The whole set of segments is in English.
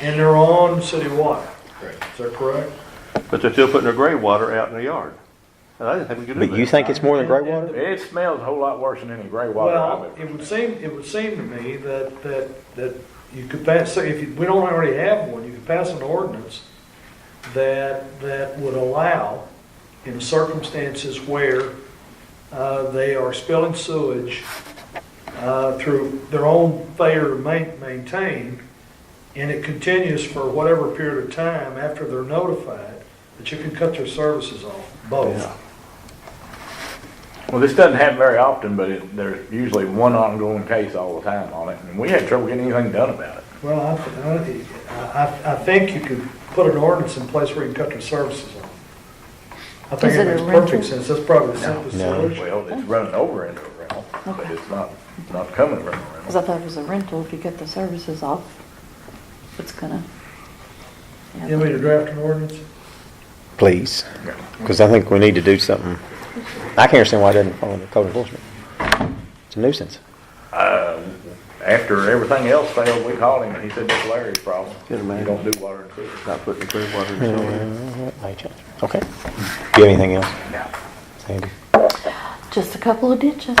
And they're on city water, Correct. is that correct? But they're still putting their gray water out in the yard. And I didn't think we could do But you that. think it's more than gray water? It smells a whole lot worse than any gray water I've Well, ever. it would seem, it would seem to me that, that, that you could pass, so if you- we don't already have one, you could pass an ordinance that, that would allow, in circumstances where uh, they are spilling sewage uh, through their own failure to ma- maintain, and it continues for whatever period of time after they're notified, that you can cut their services off, both. Well, this doesn't happen very often, but it, there's usually one ongoing case all the time on it, and we had trouble getting anything done about it. Well, I, th- I, I- I think you could put an ordinance in place where you can cut your services off. I think Is it it a makes perfect rental? sense, that's probably the simplest No. solution. Well, it's running over into a rental, but Okay. it's not, not coming from a Because rental. I thought it was a rental, if you cut the services off, it's gonna. yeah. You want me to draft an ordinance? Please, Yeah. because I think we need to do something. I can't understand why it doesn't fall under code enforcement. It's a nuisance. Uh, after everything else failed, we called him, and he said, that's Larry's problem. You Good man. don't do water and sewer. Not putting the gray water in the yard. That may change. Okay. Do you have anything else, No. Sandy? Just a couple of ditches.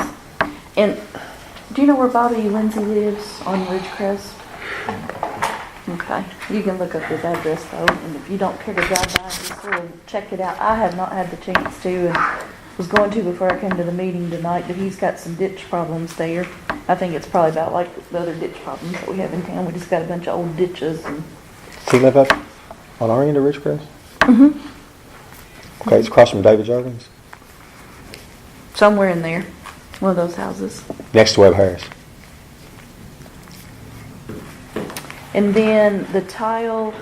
And do you know where Bobby Lindsay lives on Ridgecrest? Okay, you can look up his address though, and if you don't care to drive by, just sort of check it out. I have not had the chance to, and was going to before I came to the meeting tonight, but he's got some ditch problems there. I think it's probably about like the other ditch problems that we have in town. We just got a bunch of old ditches and Does he live up on our end of Ridgecrest? Mm-hmm. Okay, it's across from David Jorgens, somewhere in there, one of those houses. next to Webb Harris. And then the tile,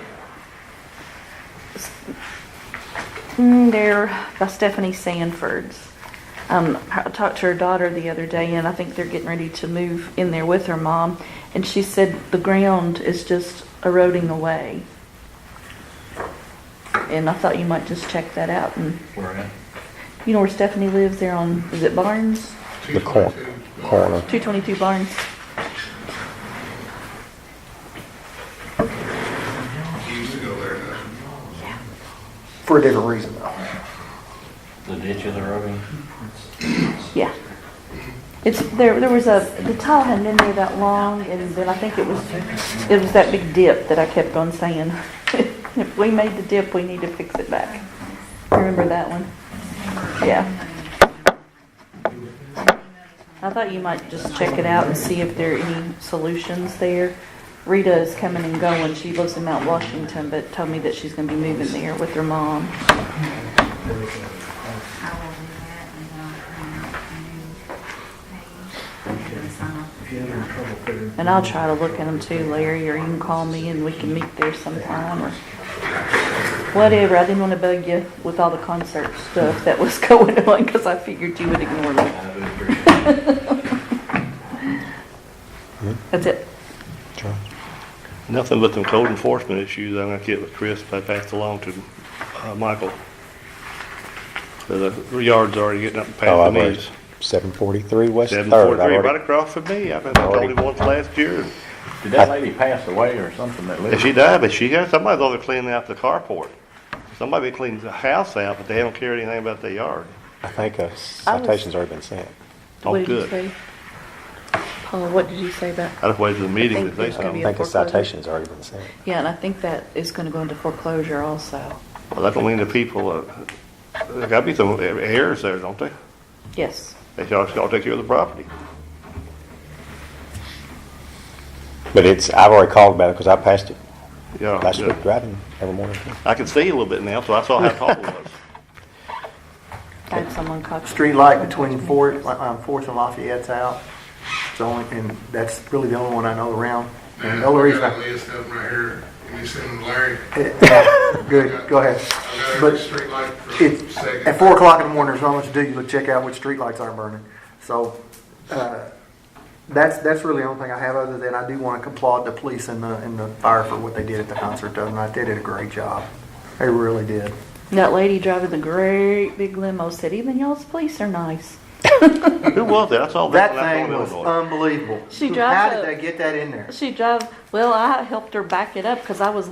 mm, there by Stephanie Sanford's. Um, I talked to her daughter the other day, and I think they're getting ready to move in there with her mom. And she said the ground is just eroding away. And I thought you might just check that out. And We're in. you know where Stephanie lives there on, is it Barnes? The cor- corner. 222 Barnes. He used to go there now. For a different reason, though. The ditch of the road. Yeah. It's, there, there was a, the tile hadn't been there that long, and then I think it was, it was that big dip that I kept on saying. If we made the dip, we need to fix it back. Remember that one? Yeah. I thought you might just check it out and see if there are any solutions there. Rita is coming and going. She lives in Mount Washington, but told me that she's gonna be moving there with her mom. If you have any trouble figuring. And I'll try to look at them too, Larry, or you can call me and we can meet there sometime or whatever. I didn't want to bug you with all the concert stuff that was going on because I figured you would ignore me. That's it. Uh, Nothing but them code enforcement issues I'm gonna get with Chris, but I passed along to, uh, Michael. The the yard's already getting up Oh, past I've the already, knees. seven forty-three West Seven Third. I've forty-three, right already- across from me. I mean, I told Already. him once last year. and- Did that lady pass away or something that lived? And she died, but she got, somebody's over cleaning out the carport. Somebody cleans the house out, but they don't care anything about the yard. I think a citation's already been sent. Oh, What did you good. say? Paul, what did you say about, I just waited for the meeting to think say there's gonna I be something. a think a foreclosure. citation's already been sent. yeah, and I think that is going to go into foreclosure also. Well, that's only the people, uh, there gotta be some heirs there, don't they? Yes. They should all take care of the property. But it's, I've already called about it because I passed it Yeah, last yeah. week driving every morning. I can see a little bit now, so I saw how tall it was. I had someone call. Street light between Fourth, um, Fourth and Lafayette's out. It's only, and that's really the only one I know around. And the only I reason, got a I- list up right here, and you send them to Larry. good, go ahead. I got every But streetlight for it's, second. at four o'clock in the morning, there's not much to do, you look, check out which street lights aren't burning. So, uh, that's, that's really the only thing I have, other than I do want to applaud the police and the, and the fire for what they did at the concert the other night. They did a great job. They really did. That lady driving the great big limo said, even y'all's police are nice. Who was that? I saw that That when I was thing in was Illinois. unbelievable. She How drives did a- they get that in there? She drove, well, I helped her back it up because I was